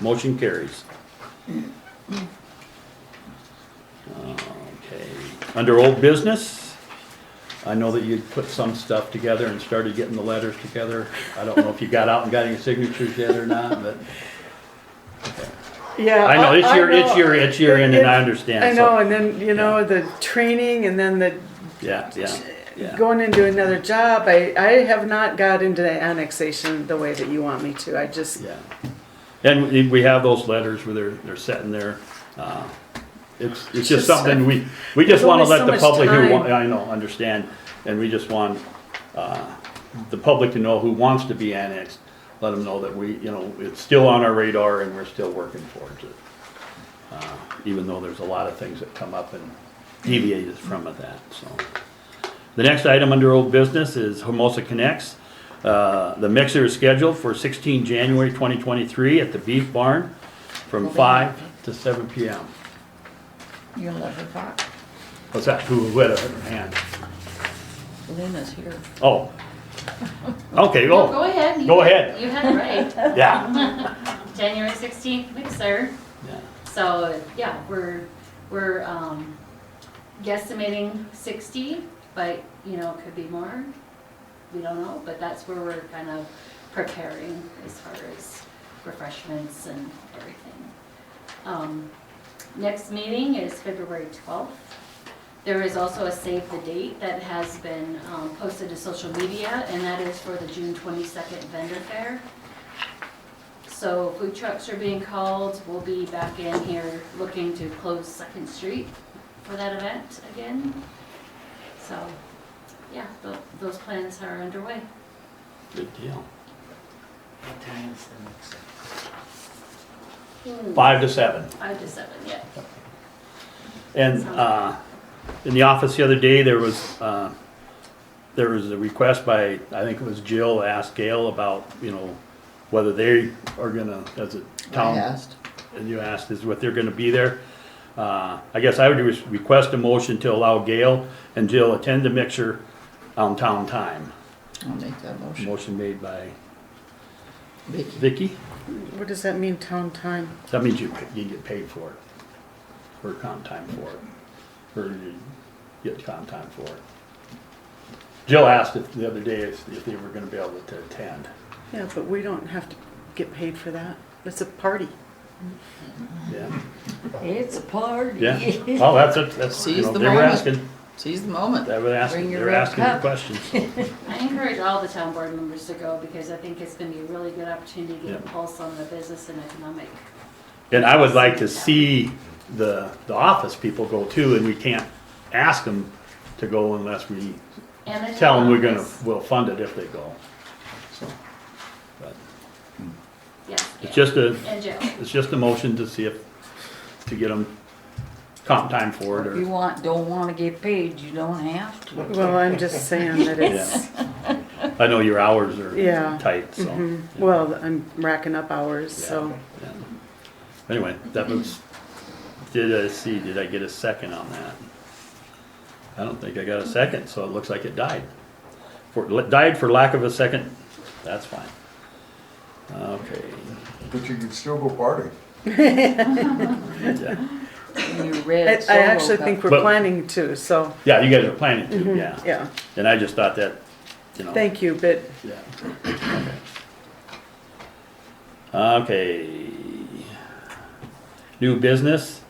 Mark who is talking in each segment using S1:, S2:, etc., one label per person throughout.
S1: Motion carries. Okay, under old business, I know that you'd put some stuff together and started getting the letters together. I don't know if you got out and got any signatures yet or not, but
S2: Yeah,
S1: I know, it's your, it's
S2: know.
S1: your, it's your end and I
S2: It- I
S1: understand,
S2: know,
S1: so,
S2: and then you know the training, and then the
S1: yeah, yeah, yeah.
S2: going into another job. I I have not got into the annexation the way that you want me to. I just
S1: Yeah. And we- we have those letters where they're, they're sitting there. uh, It's, it's just
S2: Just,
S1: something we, we just
S2: there's
S1: wanna
S2: only
S1: let
S2: so
S1: the
S2: much
S1: public who, wa-
S2: time.
S1: I know, understand. And we just want, uh, the public to know who wants to be annexed, let them know that we, you know, it's still on our radar and we're still working towards it. Uh, Even though there's a lot of things that come up and deviate us from that, so. The next item under old business is Hermosa Connects. Uh, The mixer is scheduled for 16 January 2023 at the Beef Barn from
S3: Well, they-
S1: five to seven PM.
S3: You're eleven o'clock.
S1: What's that? Who who had a hand?
S3: Lena's here.
S1: Oh. Okay,
S4: No,
S1: oh,
S4: Go ahead. You-
S1: Go ahead.
S4: You had it right.
S1: yeah.
S4: January sixteenth mixer.
S1: Yeah.
S4: So, yeah, we're, we're, um, guesstimating sixty, but, you know, it could be more. We don't know, but that's where we're kind of preparing as far as refreshments and everything. Um, next meeting is February twelfth. There is also a save the date that has been, um, posted to social media, and that is for the June twenty-second vendor fair. So food trucks are being called, we'll be back in here looking to close Second Street for that event again. So, yeah, tho- those plans are underway.
S1: Good deal.
S5: What time is the next?
S1: Five to seven.
S4: Five to seven, yeah.
S1: And uh, in the office the other day, there was, uh, there was a request by, I think it was Jill, asked Gail about, you know, whether they are gonna, as a town.
S3: I asked.
S1: and you asked is what they're gonna be there. Uh, I guess I would re- request a motion to allow Gail and Jill attend the mixer on town time.
S3: I'll make that motion.
S1: Motion made by
S3: Vicky,
S1: Vicky.
S2: what does that mean? Town time.
S1: That means you, you get paid for it, or comp time for it, or you get comp time for it. Jill asked if, the other day if, if they were gonna be able to attend.
S2: Yeah, but we don't have to get paid for that. It's a party.
S1: Yeah,
S3: it's a party.
S1: yeah. Well, that's it, that's, you
S3: Seize
S1: know,
S3: the
S1: they were
S3: moment.
S1: asking,
S3: Seize the moment.
S1: they were asking,
S3: Bring
S1: they
S3: your
S1: were
S3: red
S1: asking the
S3: cup.
S1: questions.
S4: I encourage all the town board members to go because I think it's gonna be a really good opportunity to get a
S1: Yeah.
S4: pulse on the business and economic.
S1: And I would like to see the, the office people go too, and we can't ask them to go unless we
S4: and the
S1: tell them
S4: town
S1: we're gonna,
S4: office.
S1: we'll fund it if they go. So, but
S4: Yes,
S1: It's just a,
S4: and Joe.
S1: it's just a motion to see if, to get them comp time for it,
S3: If you
S1: or,
S3: want, don't wanna get paid, you don't have to.
S2: Well, I'm just saying that it's
S1: I know your hours are
S2: Yeah.
S1: tight, so.
S2: mhm. well, I'm racking up hours, so
S1: yeah. Anyway, that was, did I see, did I get a second on that? I don't think I got a second, so it looks like it died. For, died for lack of a second, that's fine. Okay,
S6: But you can still go party.
S1: yeah,
S3: Bring your
S2: I,
S3: red
S2: I
S3: solo
S2: actually
S3: cup.
S2: think we're
S1: But-
S2: planning to. So
S1: yeah, you guys are planning to, yeah,
S2: yeah,
S1: and I just thought that, you know.
S2: Mm-hmm. thank you, but
S1: Yeah. Okay. New business,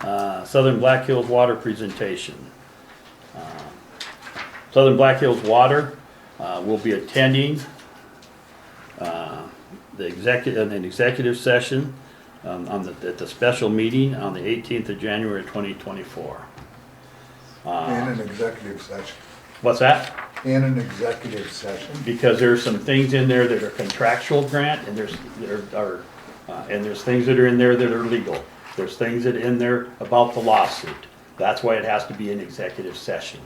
S1: uh, Southern Black Hills Water presentation. Uh, Southern Black Hills Water, uh, will be attending, uh, the executive, an executive session, um, on the, at the special meeting on the eighteenth of January twenty twenty-four.
S6: In an executive session.
S1: What's that?
S6: In an executive session.
S1: because there's some things in there that are contractual grant, and there's, there are, uh, and there's things that are in there that are legal. There's things that are in there about the lawsuit. That's why it has to be an executive session.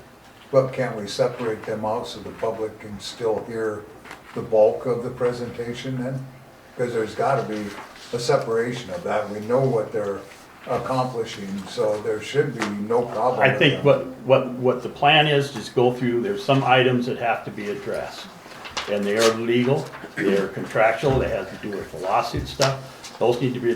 S6: But can we separate them out so the public can still hear the bulk of the presentation then? Because there's gotta be a separation of that. We know what they're accomplishing, so there should be no problem.
S1: I
S6: with
S1: think
S6: them.
S1: what, what, what the plan is, just go through, there's some items that have to be addressed. And they are legal, they are contractual, they have to do with the lawsuit stuff, Those need to be